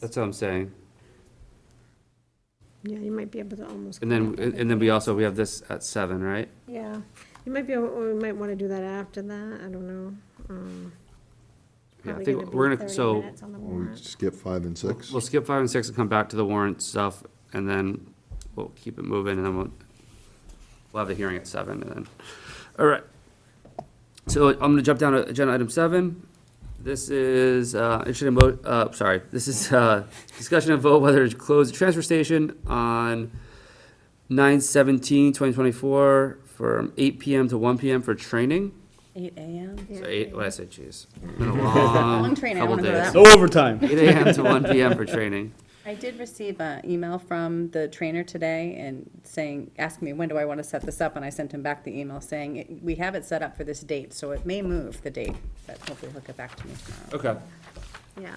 That's what I'm saying. Yeah, you might be able to almost. And then, connect it. and then we also, we have this at seven, right? Yeah, you might be, able. or we might want to do that after that, I don't know. Um, Yeah, I probably think be we're gonna, 30 so minutes on the We warrant. skip five and six? we'll skip five and six and come back to the warrant stuff and then we'll keep it moving and then we'll, we'll have the hearing at seven and then, all right. So I'm gonna jump down to agenda item seven. This is, uh, interested in, mo- uh, sorry, this is, uh, discussion of vote whether to close the transfer station on 9/17/2024 from eight PM to one PM for training. Eight AM? Yeah. So eight, what I say, geez. Been a long Long training, I couple wanna go to days. that Overtime. Eight AM to one PM for training. I did receive an email from the trainer today and saying, asking me, when do I want to set this up? And I sent him back the email saying, "It- we have it set up for this date, so it may move the date, but hopefully he'll get back to me tomorrow. Okay. Yeah,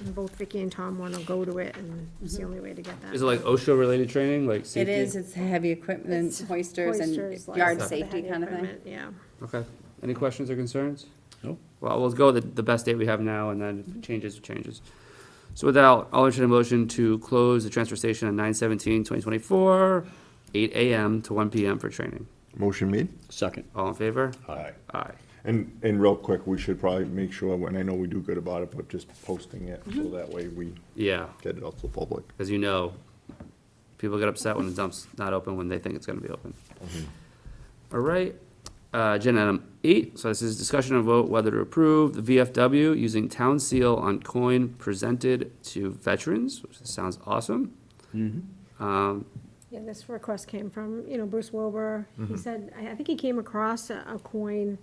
and both Vicky and Tom want to go to it, and it's Mm-hmm. the only way to get that. Is it like OSHA-related training, like It safety? is, it's heavy equipment, hoisters and Hoisters, like, yard the safety heavy kind of thing. equipment, Yeah, Okay. Any questions or concerns? No. Well, we'll go with the, the best date we have now, and then if it changes, it changes. So with that, I'll entertain a motion to close the transfer station on 9/17/2024, eight AM to one PM for training. Motion made? Second. All in favor? Aye. Aye. And, and real quick, we should probably make sure, and I know we do good about it, but just posting it, so Mm-hmm. that way we Yeah, get it out to the public. because you know, people get upset when the dump's not open when they think it's gonna be open. All right, uh, agenda item eight, so this is discussion and vote whether to approve the VFW using town seal on coin presented to veterans, which sounds awesome. Um, yeah, this request came from, you know, Bruce Wilbur, he said, I, I think he came across a, a coin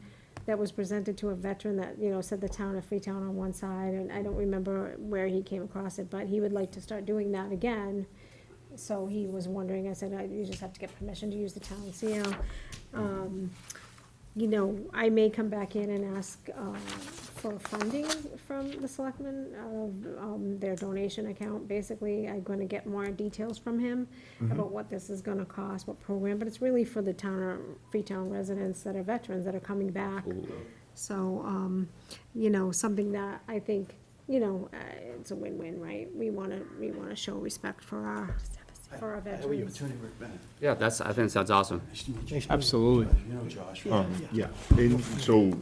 that was presented to a veteran that, you know, said the town of Freetown on one side, and I don't remember where he came across it, but he would like to start doing that again. So he was wondering, I said, "I- you just have to get permission to use the town seal. Um, you know, I may come back in and ask, uh, for funding from the selectmen, of, um, their donation account, basically, I'm gonna get more details from him about what this is gonna cost, what program, but it's really for the town, or Freetown residents that are veterans that are coming back. So, um, you know, something that I think, you know, uh, it's a win-win, right? We wanna, we wanna show respect for our, for our I owe you a veterans. 200 grand. yeah, that's, I think it sounds awesome. Nice to meet you. Absolutely. You know Josh. right? Um, yeah, and so,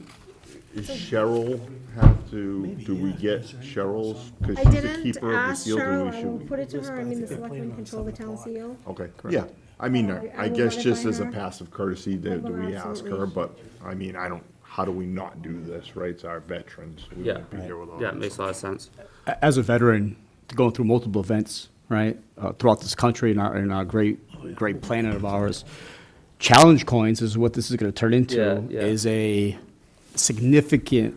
is Cheryl have to, do we get Cheryl's? Cause I she's the didn't keeper of the ask seal, do Cheryl, we I will should? put it to her, I mean, the they're selectmen planning on control the town 7 o'clock. seal. Okay, yeah, I mean, I- Oh, I I will guess run it just by as a her. passive courtesy, do do will, we ask her, absolutely. but, I mean, I don't, how do we not do this, right? It's our veterans, we Yeah. wouldn't be here without Yeah, it them. makes a lot of sense. As a veteran, going through multiple events, right, uh, throughout this country and our, and our great, great planet of ours, challenge coins is what this is going to turn into, Yeah, yeah. is a significant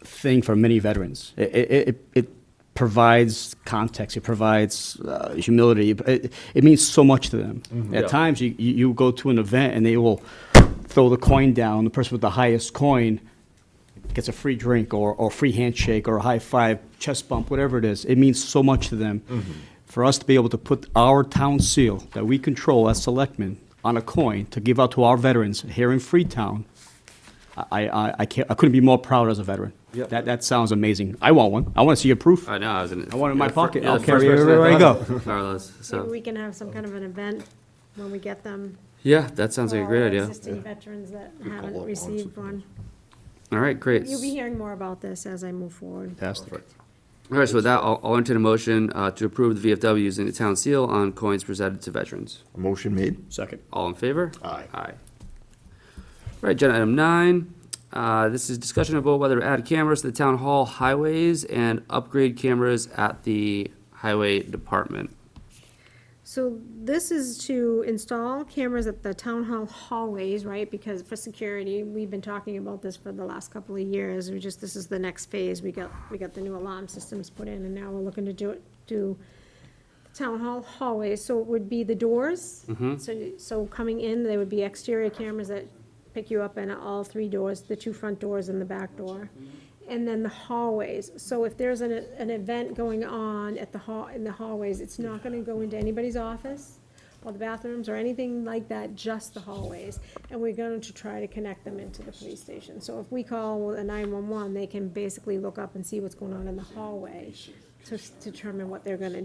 thing for many veterans. It, it, it- it provides context, it provides uh, humility, it- it, it means so much to them. Yeah. At times, you, you you go to an event and they will throw the coin down, the person with the highest coin gets a free drink or, or free handshake or a high five, chest bump, whatever it is. It means so much to them. For us to be able to put our town seal that we control as selectmen on a coin to give out to our veterans here in Freetown, I, I, I can't, I couldn't be more proud as a veteran. Yep. That, that sounds amazing. I want one. I want to see your proof. I know, I was in. I want it in my you're the fir- pocket. you're the I'll carry first it person everywhere I thought of, Carlos, Maybe so, we can have some kind of an event when we get them. yeah, that sounds like a for great our idea. Existing veterans that up haven't on received something one. All right, great. You'll be hearing more about this as I move forward. Fantastic. All right, so with that, I'll, I'll entertain a motion, uh, to approve the VFW using the town seal on coins presented to veterans. Motion made? Second. All in favor? Aye. Aye. All right, agenda item nine, uh, this is discussion about whether to add cameras to the town hall highways and upgrade cameras at the highway department. So this is to install cameras at the town hall hallways, right? Because for security, we've been talking about this for the last couple of years. We just, this is the next phase. We got, we got the new alarm systems put in and now we're looking to do it, do town hall hallways. So it would be the doors. So, so coming in, there would be exterior cameras that pick you up in all three doors, the two front doors and the back door. And then the hallways. So if there's an, an event going on at the hall, in the hallways, it's not gonna go into anybody's office or the bathrooms or anything like that, just the hallways. And we're going to try to connect them into the police station. So if we call a nine-one-one, they can basically look up and see what's going on in the hallway. to s- determine what they're gonna